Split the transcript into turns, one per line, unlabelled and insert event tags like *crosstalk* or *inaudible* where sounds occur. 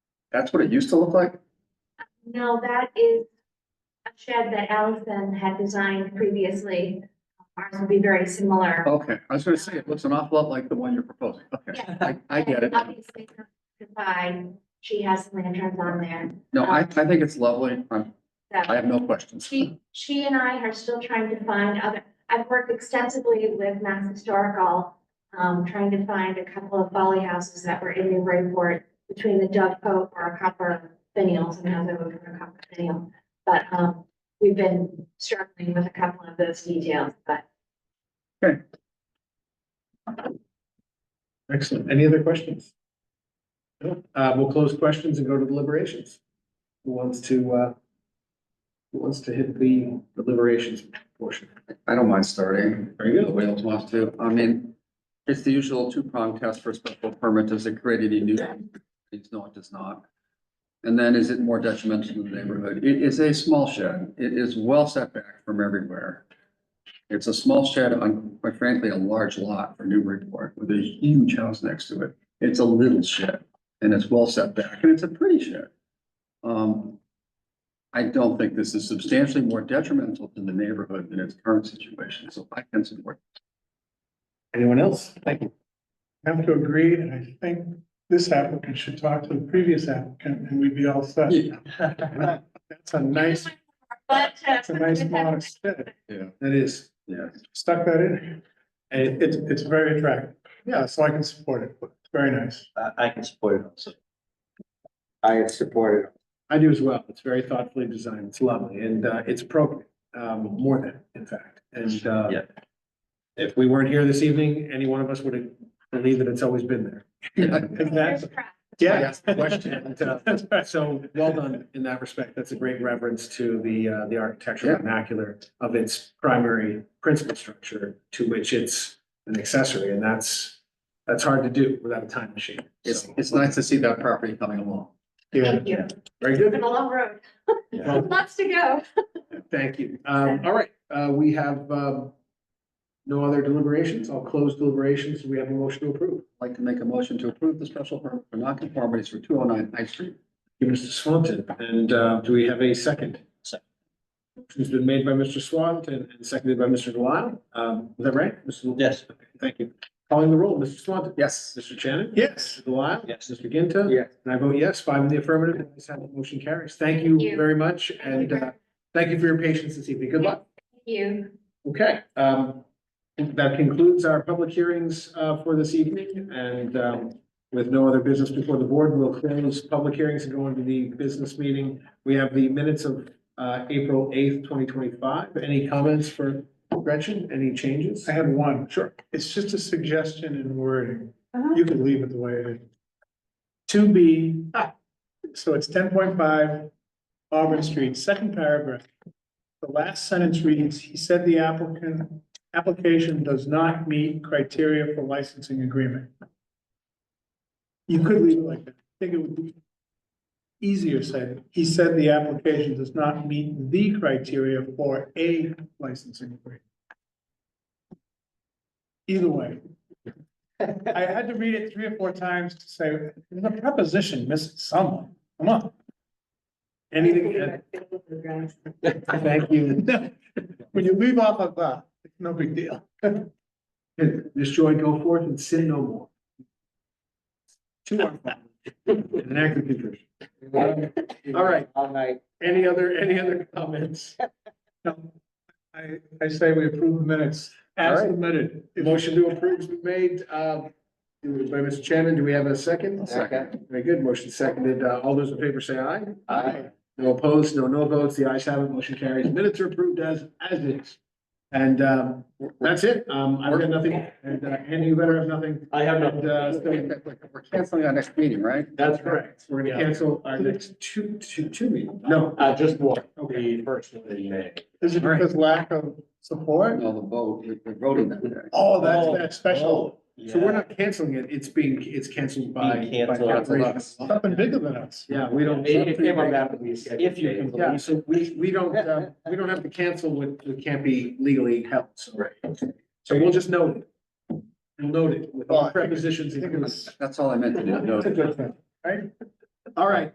That's what it used to look like?
No, that is a shed that Allison had designed previously. Ours would be very similar.
Okay, I was gonna say, it looks an awful lot like the one you're proposing. Okay, I, I get it.
And Obviously, divide, she has lanterns on there.
No, I, I think it's lovely. I'm- I
So
have no questions.
she, she and I are still trying to find other, I've worked extensively with Mass Historical, um, trying to find a couple of folly houses that were in Newburyport between the Dove Cove or a copper finials and how they were from a copper finial. But, um, we've been struggling with a couple of those details, but
Excellent. Any other questions? No? Uh, we'll close questions and go to deliberations. Who wants to, uh, who wants to hit the deliberations portion?
I don't mind starting.
Very good.
Nobody else wants to. I mean, it's the usual two-prong test for a special permit. Does it create any new? It's no, it does not. And then is it more detrimental to the neighborhood? It is a small shed. It is well set back from everywhere. It's a small shed on, quite frankly, a large lot for Newburyport with a huge house next to it. It's a little shed and it's well set back and it's a pretty shed. Um, I don't think this is substantially more detrimental to the neighborhood than its current situation, so I can support.
Anyone else? Thank you.
have to agree, and I think this applicant should talk to the previous applicant, and we'd be all set.
Yeah.
That's a nice,
But. uh,
that's a nice modest aesthetic.
That is,
Yes.
Stuck that in. And it- it's, it's very attractive. Yeah, so I can support it. It's very nice.
I, I can support it also. I support it.
I do as well. It's very thoughtfully designed. It's lovely and, uh, it's appropriate, um, more than, in fact. And, uh,
Yeah.
if we weren't here this evening, any one of us would believe that it's always been there.
There's
Exactly.
crap.
Yeah. *laughs* I asked the question. and, uh, So well done in that respect. That's a great reference to the, uh, the architectural
Yeah.
vernacular of its primary principal structure to which it's an accessory. And that's, that's hard to do without a time machine.
It's,
So,
it's nice to see that property coming along.
Thank you.
Very
It's
good.
been a long road.
Well,
Lots to go.
Thank you. Um, all right, uh, we have, um, no other deliberations. I'll close deliberations. We have a motion to approve.
I'd like to make a motion to approve the special permit for nonconformities for two oh nine High Street.
Thank you, Mr. Swanton. And, uh, do we have a second?
Second.
Motion's been made by Mr. Swanton and seconded by Mr. Delisle. Um, is that right? Mr.
Yes.
Okay, Thank you. Calling the roll, Mr. Swanton.
Yes.
Mr. Shannon.
Yes,
Mr. Delisle.
Yes.
Mr. Ginta.
Yes.
And I vote yes, five in the affirmative. The ayes have it. motion carries. Thank you
Thank you.
very much and, uh, thank you for your patience this evening. Good luck.
Thank You.
Okay, um, that concludes our public hearings, uh, for this evening, and, um, with no other business before the board, we'll close public hearings and go into the business meeting. We have the minutes of, uh, April eighth, twenty twenty-five. Any comments for Gretchen? Any changes?
I had one.
Sure.
It's just a suggestion in wording.
Uh-huh.
You can leave it the way it is. To be, *laughs* so it's ten point five Auburn Street, second paragraph. The last sentence reads, he said the applicant, application does not meet criteria for licensing agreement. You could leave it like that. I think it would be easier said. He said the application does not meet the criteria for a licensing agreement. Either way. I had to read it three or four times to say, the preposition missed someone, come on. Anything,
Thank *laughs* you.
when you leave off of that, it's no big
*laughs*
deal.
Ms. Joy, go forth and sin no more. To our Father, in an act of contrition. All right.
All night.
Any other, any other comments?
No, I, I say we approve the minutes
All
as
right.
submitted.
Motion to approve has been made, uh, by Mr. Shannon. Do we have a second?
Second.
Very good. Motion seconded. Uh, all those in favor say aye.
Aye.
No opposed, no no votes. The ayes have it. Motion carries. Minutes are approved as, as is. And, um, that's it. Um, I've got nothing. And, uh, Andy, you better have nothing.
I have
And, uh, so
We're canceling our next meeting, right?
That's
correct. We're gonna cancel our next two, two, two meetings. No.
No, uh, just one.
Okay.
The first one that you made.
Is it because lack of support?
No, the vote, we- we're voting that day.
Oh, that's, that's special,
So we're not canceling it. It's being, it's canceled by. by
Being canceled.
operations.
oh.
something bigger than us.
Yeah, we don't.
It came up after we scheduled.
If you can, yeah, so we, we don't, uh, we don't have to cancel what, what can't be legally held, so.
Right.
So we'll just note it. We'll note it with
Well,
all
I think it-
prepositions.
I think it
included.
was-
That's all I meant to do.
It's a good thing.
All right,